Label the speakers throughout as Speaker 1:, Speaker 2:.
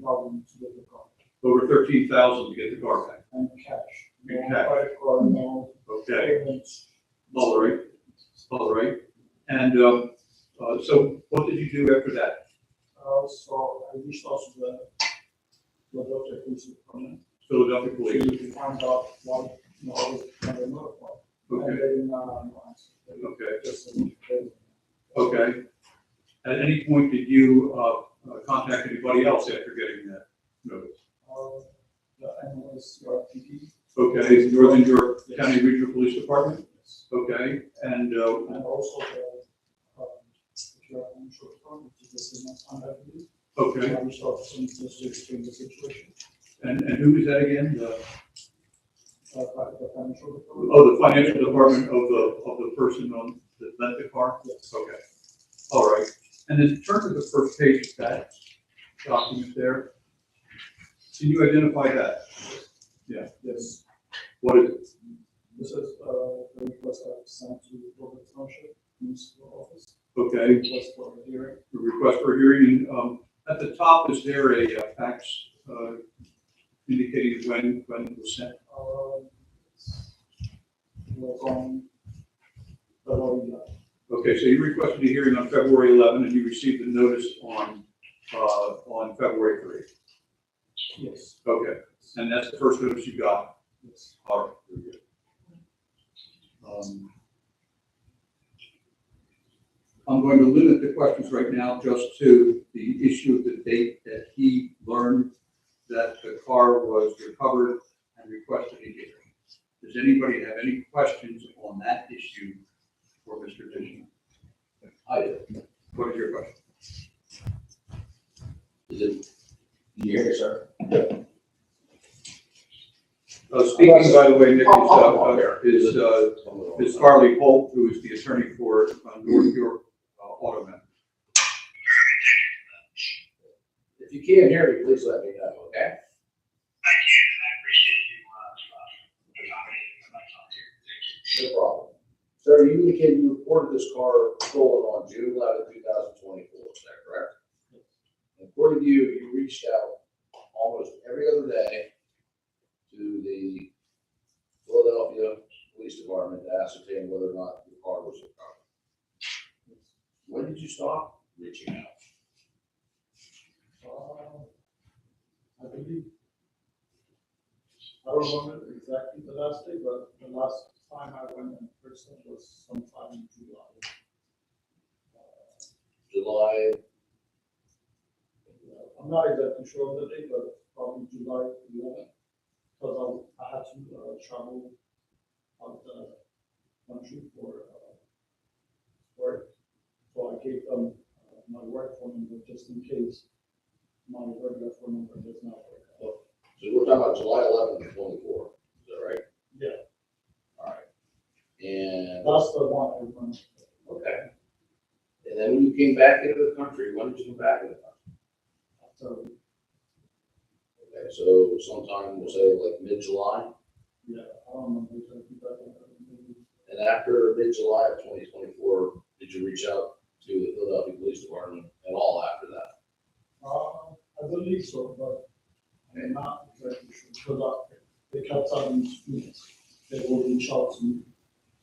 Speaker 1: problem to get the car
Speaker 2: over thirteen thousand to get the car back.
Speaker 1: and cash.
Speaker 2: And
Speaker 1: No
Speaker 2: cash.
Speaker 1: Credit card, no
Speaker 2: Okay,
Speaker 1: payments.
Speaker 2: all right, all right. And, uh, uh, so what did you do after that?
Speaker 1: Uh, so I reached out to the, the doctor who's coming.
Speaker 2: Philadelphia police,
Speaker 1: To find out what, you know, what is kind of notified. And
Speaker 2: okay,
Speaker 1: then, uh, no, I-
Speaker 2: okay.
Speaker 1: just, uh,
Speaker 2: Okay. At any point did you, uh, uh, contact anybody else after getting that notice?
Speaker 1: Uh, the ambulance, your PD.
Speaker 2: Okay, Northern York County Regional Police Department? Okay, and, uh,
Speaker 1: And also the, um, if you're on short term, which is the next one, I believe.
Speaker 2: okay,
Speaker 1: I reached out to some just to explain the situation,
Speaker 2: and, and who is that again? The-
Speaker 1: uh, but the financial. report.
Speaker 2: Oh, the financial department of the, of the person on, that lent the car?
Speaker 1: Yes.
Speaker 2: Okay, all right. And in terms of the first page of that document there, can you identify that?
Speaker 1: Yes,
Speaker 2: What is it?
Speaker 1: this is, uh, the request I sent to Robert Township Municipal Office,
Speaker 2: Okay,
Speaker 1: request for a hearing.
Speaker 2: the request for hearing, and, um, at the top, is there a uh, fax, uh, indicating when, when it was sent?
Speaker 1: Um, Was on February eleventh.
Speaker 2: Okay, so you requested a hearing on February eleven, and you received the notice on, uh, on February three.
Speaker 1: Yes,
Speaker 2: Okay, and that's the first notice you got?
Speaker 1: yes.
Speaker 2: All right, very good. Um, I'm going to limit the questions right now just to the issue of the date that he learned that the car was recovered and requested a hearing. Does anybody have any questions on that issue for Mr. Dishman?
Speaker 3: I do.
Speaker 2: What is your question?
Speaker 3: Is it? Can you hear me, sir?
Speaker 2: Uh, Speaking, by the way, Nick, is,
Speaker 3: Oh, oh,
Speaker 2: uh, is, uh, is Farley Holt, who is the attorney for uh, North York uh, Auto Men.
Speaker 3: If you can't hear me, please let me know, okay?
Speaker 4: I can, and I appreciate you, uh, uh, accommodating my time here. Thank you.
Speaker 3: No problem. Sir, you indicated you reported this car stolen on June eleventh, two thousand twenty-four, is that correct? And According to you, you reached out almost every other day to the Philadelphia Police Department to ascertain whether or not the car was recovered. When did you stop reaching out?
Speaker 1: Uh, I believe. I don't remember exactly the last day, but the last time I went in person was sometime in July. Uh,
Speaker 3: July,
Speaker 1: I'm not exactly sure of the date, but probably July eleventh, because I, I had to uh, travel out the country for, uh, work. So I gave them uh, my work phone number just in case my regular phone number does not work out.
Speaker 3: so we're talking about July eleventh, twenty-four, is that right?
Speaker 1: Yeah.
Speaker 3: All right. And
Speaker 1: That's the one I remember.
Speaker 3: Okay. And then when you came back into the country, when did you come back into the country?
Speaker 1: So,
Speaker 3: Okay, so sometime, we'll say like mid-July,
Speaker 1: yeah, I don't remember exactly, but uh, maybe,
Speaker 3: and after mid-July of twenty twenty-four, did you reach out to the Philadelphia Police Department at all after that?
Speaker 1: uh, I believe so, but I'm not exactly sure, because I, they kept telling me they will reach out to me.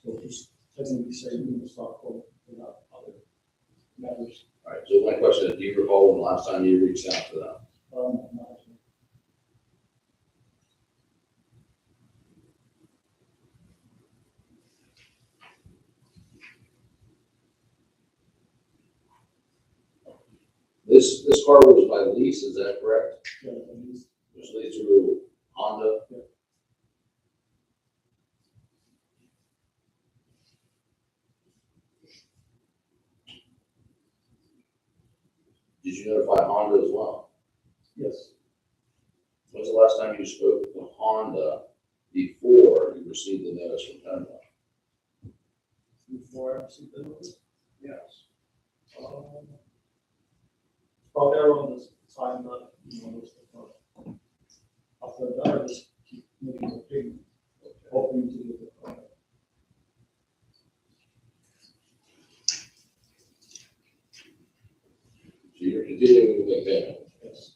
Speaker 1: So just technically saying, you know, stop calling without other matters.
Speaker 3: All right, so my question is, do you recall when the last time you reached out to them?
Speaker 1: Um, not-
Speaker 3: This, this car was by lease, is that correct?
Speaker 1: yeah, at least,
Speaker 3: It was leased through Honda?
Speaker 1: Yeah.
Speaker 3: Did you notify Honda as well?
Speaker 1: Yes,
Speaker 3: When's the last time you spoke to Honda before you received the notice from Pennell?
Speaker 1: before I received the notice.
Speaker 3: Yes.
Speaker 1: Um, Probably around this time, but